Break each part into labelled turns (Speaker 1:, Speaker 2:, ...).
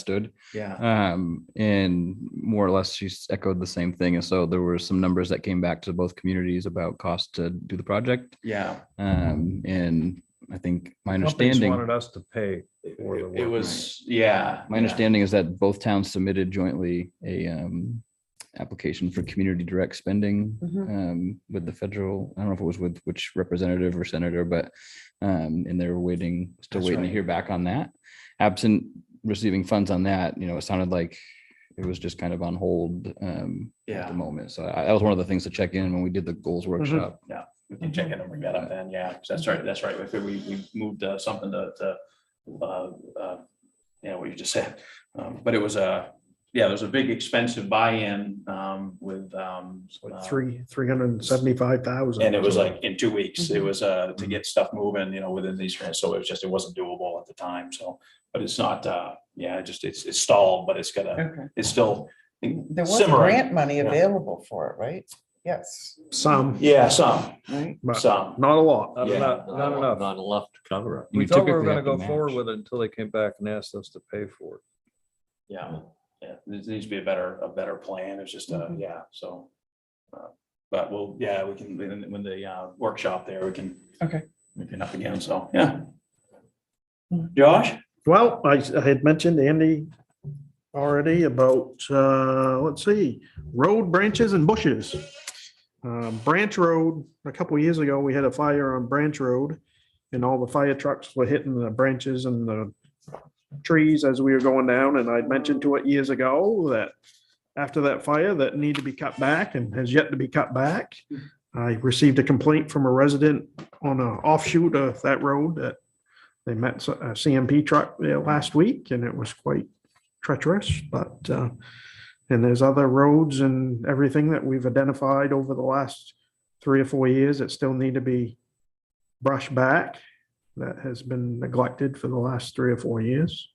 Speaker 1: stood.
Speaker 2: Yeah.
Speaker 1: Um, and more or less, she s- echoed the same thing. And so there were some numbers that came back to both communities about cost to do the project.
Speaker 2: Yeah.
Speaker 1: Um, and I think my
Speaker 3: Companies
Speaker 1: understanding,
Speaker 3: Wanted us to pay for the
Speaker 2: It
Speaker 3: work.
Speaker 2: it was, yeah.
Speaker 1: my
Speaker 2: yeah.
Speaker 1: understanding is that both towns submitted jointly a, um, application for community direct spending,
Speaker 2: Mm-hmm.
Speaker 4: Mhm.
Speaker 1: um, with the federal, I don't know if it was with which representative or senator, but, um, and they're waiting, still
Speaker 2: That's
Speaker 1: waiting to
Speaker 2: right.
Speaker 1: hear back on that. Absent receiving funds on that, you know, it sounded like it was just kind of on hold, um, at
Speaker 2: Yeah. Mm-hmm.
Speaker 1: the moment. So I, that was one of the things to check in when we did the goals workshop.
Speaker 2: We can check in and bring that up then. Yeah. 'Cause That's right. That's right. If we, we moved uh, something to, to, uh, uh, yeah, what you just said. Um, But it was a, yeah, there was a big expensive buy-in, um, with, um,
Speaker 3: It's like
Speaker 2: uh,
Speaker 3: Three, three hundred and seventy-five thousand.
Speaker 2: And it was like in two weeks,
Speaker 3: Mm-hmm.
Speaker 2: it was uh to get stuff moving, you know, within these, grants. so it was just, it wasn't doable at the time, so. But it's not, uh, yeah, it just, it's it's stalled, but it's gonna,
Speaker 4: Okay.
Speaker 2: it's still
Speaker 4: There was
Speaker 2: simmering.
Speaker 4: grant money
Speaker 2: Yeah.
Speaker 4: available for it, right? Yes.
Speaker 3: Some,
Speaker 2: Yeah, some,
Speaker 4: Right?
Speaker 3: but
Speaker 2: some,
Speaker 3: not a lot.
Speaker 5: Not
Speaker 2: Yeah.
Speaker 5: enough,
Speaker 3: Not
Speaker 5: not
Speaker 3: enough.
Speaker 5: enough. Not enough to cover
Speaker 1: You
Speaker 3: We thought we were
Speaker 1: typically
Speaker 3: gonna
Speaker 1: have to
Speaker 3: go forward
Speaker 1: match.
Speaker 3: with it until they came back and asked us to pay for it.
Speaker 2: yeah, Mm. yeah, there needs to be a better, a better plan, it's just, uh,
Speaker 4: Mhm.
Speaker 2: yeah, so. uh, But we'll, yeah, we can, when- when the uh workshop there, we can.
Speaker 4: Okay.
Speaker 2: We can up again, so, yeah.
Speaker 4: Mhm.
Speaker 2: Josh?
Speaker 3: Well, I, I had mentioned Andy already about, uh, let's see, road branches and bushes. Uh, Branch Road, a couple years ago, we had a fire on Branch Road and all the fire trucks were hitting the branches and the trees as we were going down. And I'd mentioned to it years ago that after that fire that need to be cut back and has yet to be cut back. I received a complaint from a resident on an offshoot of that road that they met s- a CMP truck there last week and it was quite treacherous, but, uh, and there's other roads and everything that we've identified over the last three or four years that still need to be brushed back. That has been neglected for the last three or four years.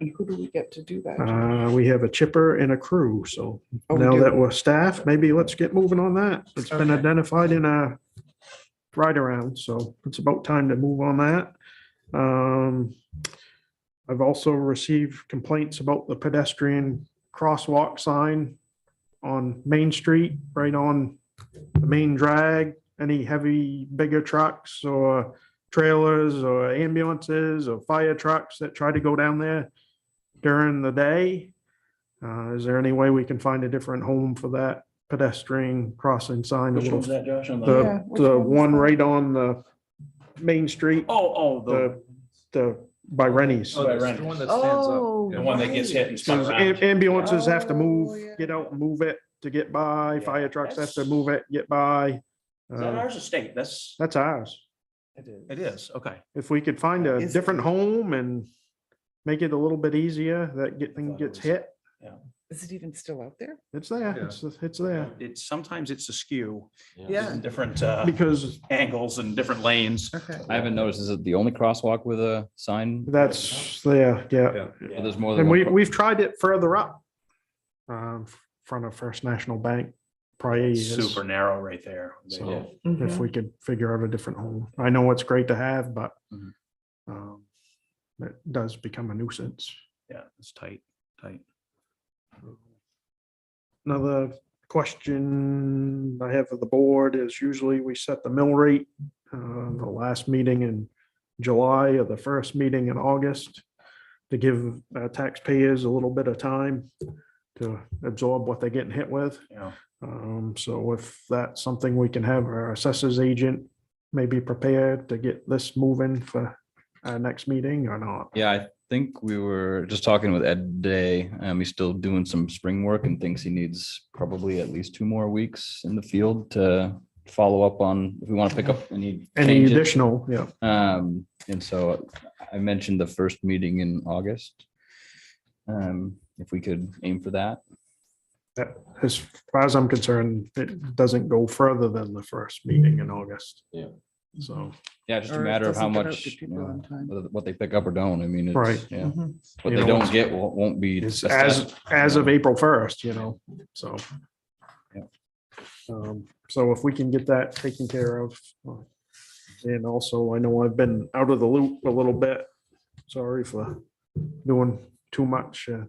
Speaker 4: And who do we get to do that?
Speaker 3: Uh, we have a chipper and a crew, so
Speaker 4: Oh, we
Speaker 3: now
Speaker 4: do.
Speaker 3: that we're staff, maybe let's get moving on that. It's been
Speaker 4: Okay.
Speaker 3: identified in a ride around, so it's about time to move on that. Um, I've also received complaints about the pedestrian crosswalk sign on Main Street, right on the main drag. Any heavy, bigger trucks or trailers or ambulances or fire trucks that try to go down there during the day. Uh, is there any way we can find a different home for that pedestrian crossing sign?
Speaker 2: Which one's that, Josh? on
Speaker 4: Yeah,
Speaker 3: The,
Speaker 4: which
Speaker 3: the
Speaker 4: one's
Speaker 3: one
Speaker 4: that?
Speaker 3: right on the main street,
Speaker 2: Oh, oh, the,
Speaker 3: the, the, by Rennie's.
Speaker 2: Oh, that's the one
Speaker 3: that
Speaker 4: Oh.
Speaker 2: the one that gets hit and spun
Speaker 3: Because
Speaker 2: around.
Speaker 3: am- ambulances have to
Speaker 4: Oh,
Speaker 3: move,
Speaker 4: yeah.
Speaker 3: get out and move it to get by,
Speaker 2: Yeah,
Speaker 3: fire trucks have to
Speaker 2: that's-
Speaker 3: move it, get by.
Speaker 2: Is that
Speaker 3: Uh,
Speaker 2: ours or state? That's.
Speaker 3: That's ours.
Speaker 2: It is, okay.
Speaker 3: If we could find a
Speaker 4: Is it?
Speaker 3: different home and make it a little bit easier, that get, thing
Speaker 2: thought it
Speaker 3: gets
Speaker 2: was-
Speaker 3: hit,
Speaker 4: Is it even still out there?
Speaker 3: it's there,
Speaker 5: Yeah.
Speaker 3: it's, it's there.
Speaker 2: It's, sometimes it's askew.
Speaker 5: it.
Speaker 4: Yeah.
Speaker 2: in Different uh,
Speaker 3: Because
Speaker 2: angles and different lanes.
Speaker 4: Okay.
Speaker 1: I haven't noticed, is it the only crosswalk with a sign?
Speaker 3: that's there, yeah.
Speaker 1: Or There's more than
Speaker 3: And
Speaker 1: one.
Speaker 3: we,
Speaker 1: cro-
Speaker 3: we've tried it further up. Um, f- front of First National Bank, prior
Speaker 2: It's
Speaker 3: years,
Speaker 2: Super narrow right there.
Speaker 1: So-
Speaker 3: if
Speaker 4: Mhm.
Speaker 3: we could figure out a different home. I know it's great to have, but.
Speaker 1: Mhm.
Speaker 3: Um, it does become a nuisance.
Speaker 2: Yeah, it's tight, tight.
Speaker 3: Another question I have for the board is usually we set the mill rate, uh, the last meeting in July or the first meeting in August to give uh, taxpayers a little bit of time to absorb what they're getting hit with.
Speaker 2: Yeah.
Speaker 3: Um, so if that's something we can have our assessors agent maybe prepared to get this moving for our next meeting or not.
Speaker 1: Yeah, I think we were just talking with Ed today. Um, he's still doing some spring work and thinks he needs probably at least two more weeks in the field to follow up on if we want to pick up any.
Speaker 3: Any
Speaker 1: changes.
Speaker 3: additional, yeah.
Speaker 1: Um, and so I mentioned the first meeting in August. Um, if we could aim for that.
Speaker 3: As far as I'm concerned, it doesn't go further than the first meeting in August.
Speaker 5: Yeah.
Speaker 3: So,
Speaker 1: Yeah, just a
Speaker 4: Or it
Speaker 1: matter of how
Speaker 4: doesn't get out to
Speaker 1: much, you
Speaker 4: people
Speaker 1: know,
Speaker 4: on time.
Speaker 1: whether- what they pick up or don't. I mean, it's,
Speaker 3: Right.
Speaker 1: yeah,
Speaker 4: Mhm.
Speaker 1: what
Speaker 3: You
Speaker 1: they
Speaker 3: know,
Speaker 1: don't
Speaker 3: it's-
Speaker 1: get won't won't be.
Speaker 3: it's
Speaker 1: assessed.
Speaker 3: as, as of April first, you know, so.
Speaker 1: Yeah.
Speaker 3: Um, So if we can get that taken care of. uh, And also, I know I've been out of the loop a little bit. Sorry for doing too much. uh,